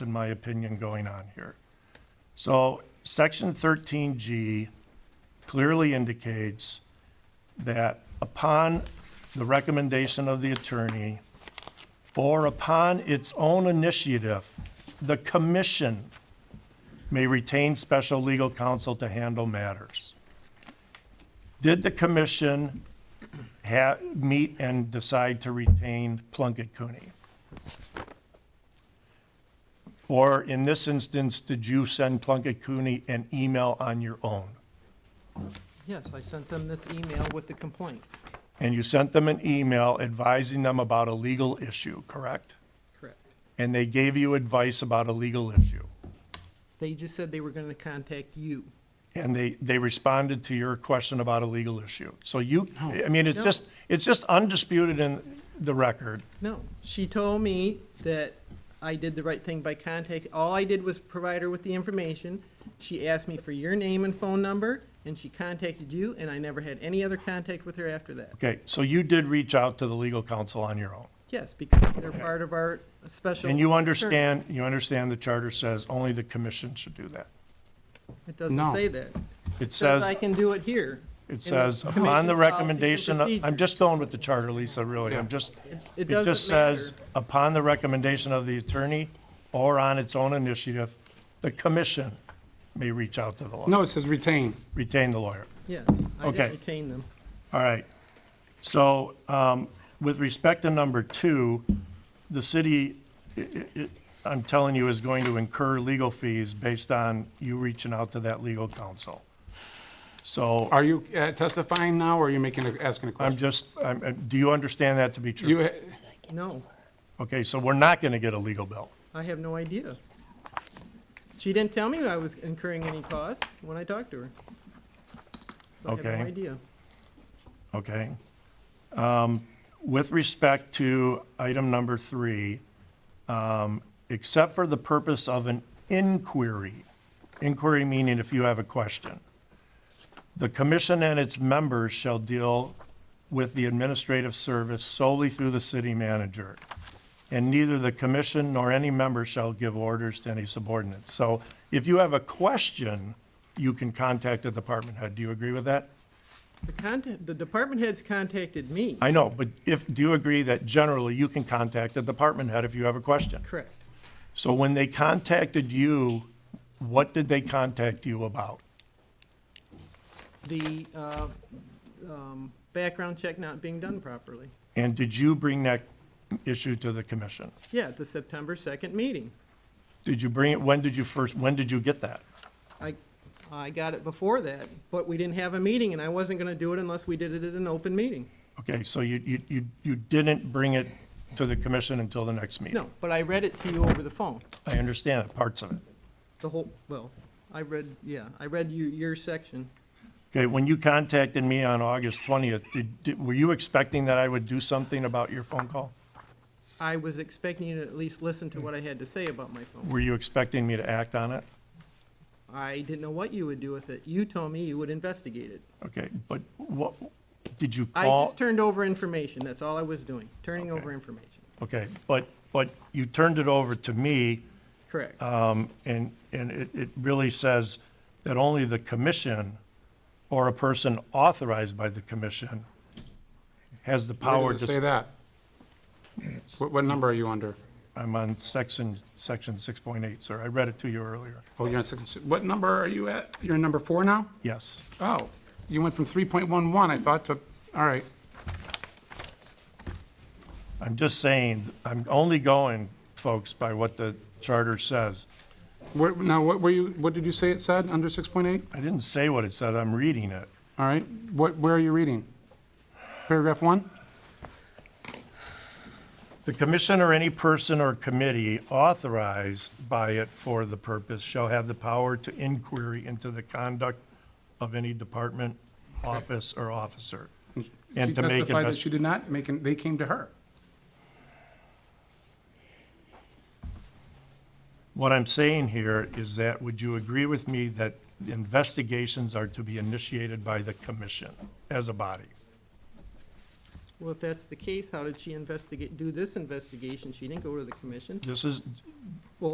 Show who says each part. Speaker 1: in my opinion, going on here. So section thirteen G clearly indicates that upon the recommendation of the attorney or upon its own initiative, the commission may retain special legal counsel to handle matters. Did the commission ha, meet and decide to retain Plunkett Cooney? Or in this instance, did you send Plunkett Cooney an email on your own?
Speaker 2: Yes, I sent them this email with the complaint.
Speaker 1: And you sent them an email advising them about a legal issue, correct?
Speaker 2: Correct.
Speaker 1: And they gave you advice about a legal issue?
Speaker 2: They just said they were going to contact you.
Speaker 1: and they, they responded to your question about a legal issue. So you, I mean, it's
Speaker 2: No.
Speaker 1: just, it's just undisputed in the record.
Speaker 2: No, she told me that I did the right thing by contact, all I did was provide her with the information. She asked me for your name and phone number, and she contacted you, and I never had any other contact with her after that.
Speaker 1: Okay, so you did reach out to the legal counsel on your own.
Speaker 2: Yes, because they're part of our special.
Speaker 1: And you understand, you understand the charter says only the commission should do that.
Speaker 2: It doesn't
Speaker 3: No.
Speaker 2: say that. It
Speaker 1: It
Speaker 2: says I
Speaker 1: says,
Speaker 2: can do it here.
Speaker 1: it says,
Speaker 2: commission's
Speaker 1: upon the
Speaker 2: policies and
Speaker 1: recommendation, of- I'm just going with the charter, Lisa, really, I'm just,
Speaker 2: It
Speaker 1: it just
Speaker 2: doesn't matter.
Speaker 1: says, upon the recommendation of the attorney or on its own initiative, the commission may reach out to the lawyer,
Speaker 3: No, it says retain.
Speaker 1: retain the lawyer.
Speaker 2: Yes, I
Speaker 1: Okay.
Speaker 2: did retain them.
Speaker 1: All right. So um, with respect to number two, the city, i- i- i- I'm telling you, is going to incur legal fees based on you reaching out to that legal counsel. So
Speaker 3: Are you uh, testifying now, or are you making, a- asking a
Speaker 1: I'm
Speaker 3: question?
Speaker 1: just, I'm- uh, do you understand that to be true?
Speaker 3: You, uh,
Speaker 2: No,
Speaker 1: Okay, so we're not going to get a legal bill.
Speaker 2: I have no idea. She didn't tell me I was incurring any cost when I talked to her. So I
Speaker 1: Okay.
Speaker 2: have no idea.
Speaker 1: Okay. Um, With respect to item number three, um, except for the purpose of an inquiry, inquiry meaning if you have a question, the commission and its members shall deal with the administrative service solely through the city manager, and neither the commission nor any member shall give orders to any subordinate. So if you have a question, you can contact the department head. Do you agree with that?
Speaker 2: The contact, the department heads contacted me,
Speaker 1: I know, but if, do you agree that generally you can contact the department head if you have a question?
Speaker 2: correct.
Speaker 1: So when they contacted you, what did they contact you about?
Speaker 2: The, uh, um, background check not being done properly.
Speaker 1: And did you bring that issue to the commission?
Speaker 2: Yeah, at the September second meeting.
Speaker 1: Did you bring it, when did you first, when did you get that?
Speaker 2: I, I got it before that, but we didn't have a meeting, and I wasn't gonna do it unless we did it at an open meeting.
Speaker 1: Okay, so you, you, you you didn't bring it to the commission until the next meeting?
Speaker 2: No, but I read it to you over the phone.
Speaker 1: I understand it, parts of it.
Speaker 2: The whole, well, I read, yeah, I read you, your section.
Speaker 1: Okay, when you contacted me on August 20th, did, did- were you expecting that I would do something about your phone call?
Speaker 2: I was expecting you to at least listen to what I had to say about my phone.
Speaker 1: Were you expecting me to act on it?
Speaker 2: I didn't know what you would do with it. You told me you would investigate it.
Speaker 1: Okay, but what, did you
Speaker 2: I
Speaker 1: call?
Speaker 2: just turned over information, that's all I was doing, turning over information.
Speaker 1: Okay, but, but you turned it over to me,
Speaker 2: Correct.
Speaker 1: um, and, and it, it really says that only the commission or a person authorized by the commission has the
Speaker 3: where
Speaker 1: power
Speaker 3: does it uh, say
Speaker 1: to.
Speaker 3: that? What, what number are you under?
Speaker 1: I'm on section, section six point eight, sir. I read it to you earlier.
Speaker 3: Oh, you're on six, what number are you at? You're in number four now?
Speaker 1: Yes.
Speaker 3: Oh, you went from 3.11, I thought, to, all right.
Speaker 1: I'm just saying, I'm only going, folks, by what the charter says.
Speaker 3: Where, now, what were you, what did you say it said, under 6.8?
Speaker 1: I didn't say what it said. I'm reading it.
Speaker 3: All right, what, where are you reading? Paragraph one?
Speaker 1: The commission or any person or committee authorized by it for the purpose shall have the power to inquiry into the conduct of any department, office, or officer. And to make
Speaker 3: She testified that
Speaker 1: invest,
Speaker 3: she did not make, an- they came to her.
Speaker 1: what I'm saying here is that, would you agree with me that the investigations are to be initiated by the commission as a body?
Speaker 2: Well, if that's the case, how did she investigate, do this investigation? She didn't go to the commission.
Speaker 1: This is,